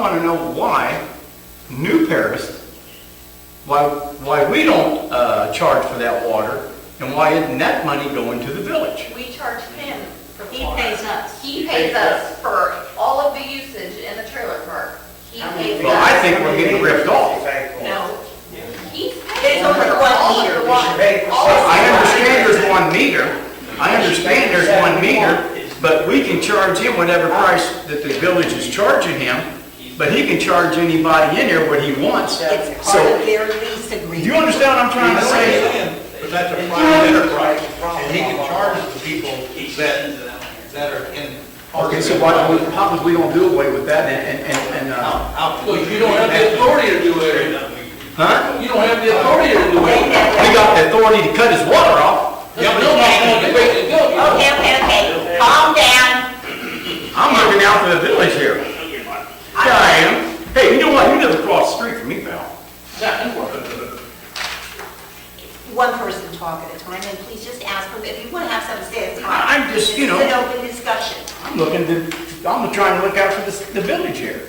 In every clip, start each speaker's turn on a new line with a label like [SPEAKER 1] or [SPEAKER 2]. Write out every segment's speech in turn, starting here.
[SPEAKER 1] want to know why New Paris, why, why we don't uh, charge for that water, and why isn't that money going to the village?
[SPEAKER 2] We charge him for the
[SPEAKER 3] He
[SPEAKER 2] water.
[SPEAKER 3] pays us.
[SPEAKER 2] He pays us for all of the usage in the trailer park. He
[SPEAKER 3] How many
[SPEAKER 2] pays
[SPEAKER 1] Well, I
[SPEAKER 2] us.
[SPEAKER 1] think we're getting ripped off.
[SPEAKER 2] No, he's
[SPEAKER 3] It's
[SPEAKER 2] paying
[SPEAKER 3] only
[SPEAKER 2] for
[SPEAKER 3] one
[SPEAKER 2] all
[SPEAKER 3] meter.
[SPEAKER 2] of the
[SPEAKER 3] We should
[SPEAKER 2] water.
[SPEAKER 4] pay for
[SPEAKER 2] All
[SPEAKER 4] some.
[SPEAKER 2] of the
[SPEAKER 1] I
[SPEAKER 2] water.
[SPEAKER 1] understand there's one meter, I understand there's one meter, but we can charge him whatever price that the village is charging him, but he can charge anybody in there what he wants.
[SPEAKER 3] It's
[SPEAKER 1] So,
[SPEAKER 3] part of their lease
[SPEAKER 1] do
[SPEAKER 3] agreement.
[SPEAKER 1] you understand what I'm trying to say?
[SPEAKER 5] But that's a private enterprise, and he can charge the people that, that are in.
[SPEAKER 1] Okay, so why don't we, how come we don't do away with that and, and- and, and, uh,
[SPEAKER 5] Out.
[SPEAKER 6] Because you don't have the authority to do it.
[SPEAKER 1] huh?
[SPEAKER 6] You don't have the authority to do
[SPEAKER 3] Wait,
[SPEAKER 6] it.
[SPEAKER 3] that-
[SPEAKER 1] We got the authority to cut his water off.
[SPEAKER 6] Yeah, but nobody's going to debate the bill.
[SPEAKER 3] Okay, okay, okay, calm down.
[SPEAKER 1] I'm looking out for the village here. Yeah, I am. Hey, you know what? You live across the street from me, pal.
[SPEAKER 3] One person talk at a time, and please just ask them, if you want to have something to say, it's fine.
[SPEAKER 1] I- I'm just, you know-
[SPEAKER 3] This is an open discussion.
[SPEAKER 1] I'm looking to, I'm trying to look out for this, the village here.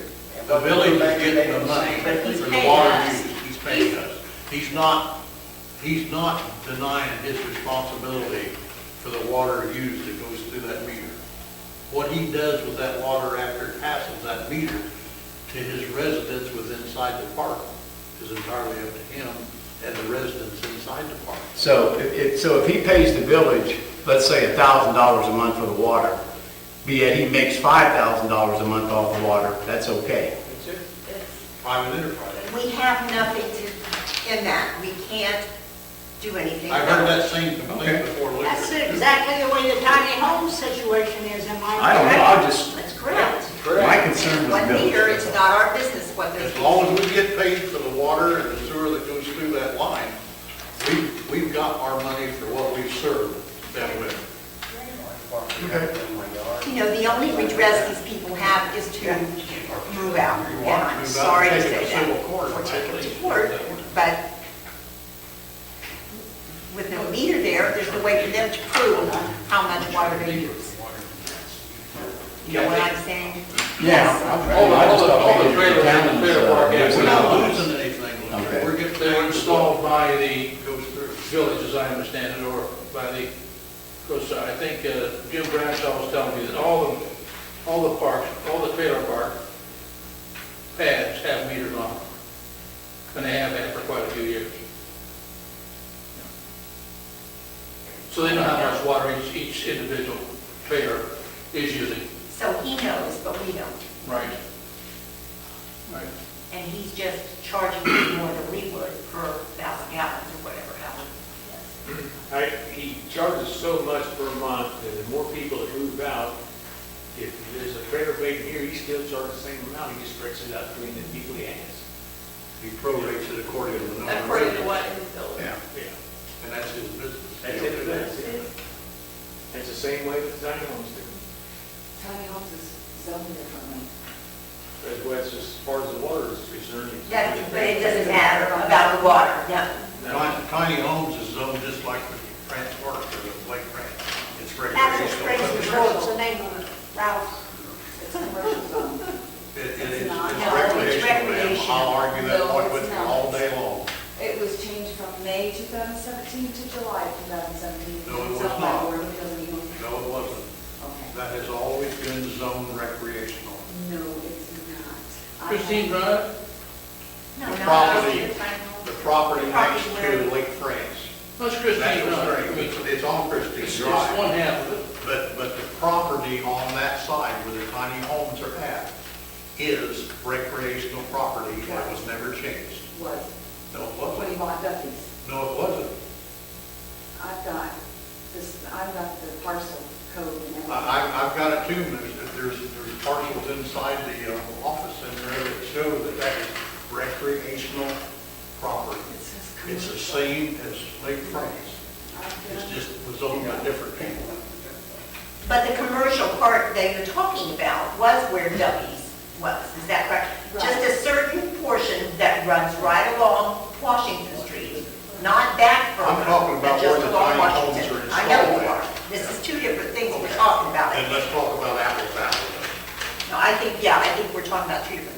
[SPEAKER 5] The village is getting the money
[SPEAKER 3] But he's
[SPEAKER 5] for the
[SPEAKER 3] paying
[SPEAKER 5] water
[SPEAKER 3] us.
[SPEAKER 5] use, he's paying us. He's not, he's not denying his responsibility for the water used that goes through that meter. What he does with that water after it passes that meter to his residents within inside the park is entirely up to him and the residents inside the park.
[SPEAKER 1] So if- if, so if he pays the village, let's say a thousand dollars a month for the water, be it he makes five thousand dollars a month off the water, that's okay.
[SPEAKER 5] Private enterprise.
[SPEAKER 3] We have nothing to, in that, we can't do anything.
[SPEAKER 5] I've heard that same complaint before. Luther.
[SPEAKER 7] That's exactly the way the tiny home situation is, am I correct?
[SPEAKER 1] I don't know, I just,
[SPEAKER 3] That's correct.
[SPEAKER 1] my concern was
[SPEAKER 3] One meter, it's
[SPEAKER 1] village.
[SPEAKER 3] not our business what they're.
[SPEAKER 5] As long as we get paid for the water and the sewer that goes through that line, we, we've got our money for what we've served them with.
[SPEAKER 3] You know, the only redress these people have is to move out.
[SPEAKER 5] You
[SPEAKER 3] And
[SPEAKER 5] want to
[SPEAKER 3] I'm
[SPEAKER 5] move out,
[SPEAKER 3] sorry to
[SPEAKER 5] take it
[SPEAKER 3] say
[SPEAKER 5] to
[SPEAKER 3] that.
[SPEAKER 5] civil court,
[SPEAKER 3] Or take it to
[SPEAKER 5] right?
[SPEAKER 3] court, but with no meter there, there's no way for them to prove how much water they use. You know what I'm saying?
[SPEAKER 1] Yeah. I-
[SPEAKER 6] All the,
[SPEAKER 1] I just
[SPEAKER 6] all the,
[SPEAKER 1] thought
[SPEAKER 6] all the
[SPEAKER 1] maybe
[SPEAKER 6] trailers in the trailer park, yeah,
[SPEAKER 5] We're
[SPEAKER 6] we're
[SPEAKER 5] not
[SPEAKER 6] not-
[SPEAKER 5] losing anything,
[SPEAKER 1] Okay.
[SPEAKER 5] Luther. we're getting,
[SPEAKER 6] they were
[SPEAKER 5] they're
[SPEAKER 6] installed
[SPEAKER 5] installed.
[SPEAKER 6] by the village, as I understand it, or by the, because I think uh, Jim Bradshaw was telling me that all the, all the parks, all the trailer park pads have meters on them. And they have had for quite a few years. So they know how much water each, each individual trailer is using.
[SPEAKER 3] So he knows, but we don't.
[SPEAKER 6] Right. Right.
[SPEAKER 3] And he's just charging us more than we would per thousand gallons or whatever, how much.
[SPEAKER 8] I, he charges so much per month, and the more people that move out, if there's a trailer vacant here, he still charges the same amount, he just breaks it out between the people he has.
[SPEAKER 5] He prorates it according to the number.
[SPEAKER 2] According to what is built.
[SPEAKER 5] Yeah,
[SPEAKER 8] Yeah,
[SPEAKER 5] and that's his business.
[SPEAKER 8] that's it, that's it. That's the same way with tiny homes do.
[SPEAKER 9] Tiny homes is zoned differently.
[SPEAKER 8] As well, it's just as far as the water is concerned. it's-
[SPEAKER 3] That- But it doesn't matter about the water, no.
[SPEAKER 5] Tiny tiny homes is zoned just like the France Park or the Lake France. It's
[SPEAKER 7] That's a strange
[SPEAKER 5] recreational.
[SPEAKER 7] control, it's the name of it, Ralph's.
[SPEAKER 9] It's a commercial zone.
[SPEAKER 5] It it
[SPEAKER 9] It's
[SPEAKER 5] is
[SPEAKER 9] not.
[SPEAKER 5] it's
[SPEAKER 3] No, it's
[SPEAKER 5] recreational, ma'am. I'll argue that
[SPEAKER 9] recreational.
[SPEAKER 5] point
[SPEAKER 9] No,
[SPEAKER 5] with
[SPEAKER 9] it's
[SPEAKER 5] you
[SPEAKER 9] not.
[SPEAKER 5] all day long.
[SPEAKER 9] It was changed from May 2017 to July 2017.
[SPEAKER 5] No, it was
[SPEAKER 9] It's owned by
[SPEAKER 5] not.
[SPEAKER 9] Board of Appeals.
[SPEAKER 5] No, it wasn't.
[SPEAKER 9] Okay.
[SPEAKER 5] That has always been zone recreational.
[SPEAKER 9] No, it's not. I have-
[SPEAKER 6] Christine Drive?
[SPEAKER 3] No,
[SPEAKER 5] The
[SPEAKER 3] no,
[SPEAKER 5] property-
[SPEAKER 3] it's fine.
[SPEAKER 5] The property next
[SPEAKER 3] Property
[SPEAKER 5] to
[SPEAKER 3] where-
[SPEAKER 5] Lake France,
[SPEAKER 6] That's
[SPEAKER 5] that
[SPEAKER 6] Christine
[SPEAKER 5] was
[SPEAKER 6] Drive.
[SPEAKER 5] great.
[SPEAKER 6] I mean,
[SPEAKER 5] It's- It's on
[SPEAKER 6] It's
[SPEAKER 5] Christie
[SPEAKER 6] just
[SPEAKER 5] Drive.
[SPEAKER 6] one half of it.
[SPEAKER 5] But, but the property on that side where the tiny homes are at is recreational property that was never changed.
[SPEAKER 9] Was,
[SPEAKER 5] No, it
[SPEAKER 9] when he
[SPEAKER 5] wasn't.
[SPEAKER 9] bought Duffy's.
[SPEAKER 5] No, it wasn't.
[SPEAKER 9] I've got this, I've got the parcel code and
[SPEAKER 5] I,
[SPEAKER 9] everything.
[SPEAKER 5] I- I've got it too, there's, there's there's parcels inside the uh, office in there that show that that is recreational property.
[SPEAKER 9] It says
[SPEAKER 5] It's the
[SPEAKER 9] commercial.
[SPEAKER 5] same as Lake France,
[SPEAKER 9] I've got-
[SPEAKER 5] it's just was owned by different people.
[SPEAKER 3] But the commercial part that you're talking about was where W's was, is that correct?
[SPEAKER 9] Right.
[SPEAKER 3] Just a certain portion that runs right along Washington Street, not back from.
[SPEAKER 5] I'm talking about where the tiny homes are
[SPEAKER 3] I know
[SPEAKER 5] installed
[SPEAKER 3] you
[SPEAKER 5] at.
[SPEAKER 3] are. This is two different things we're talking about.
[SPEAKER 5] And let's talk about apples to apples.
[SPEAKER 3] No, I think, yeah, I think we're talking about two different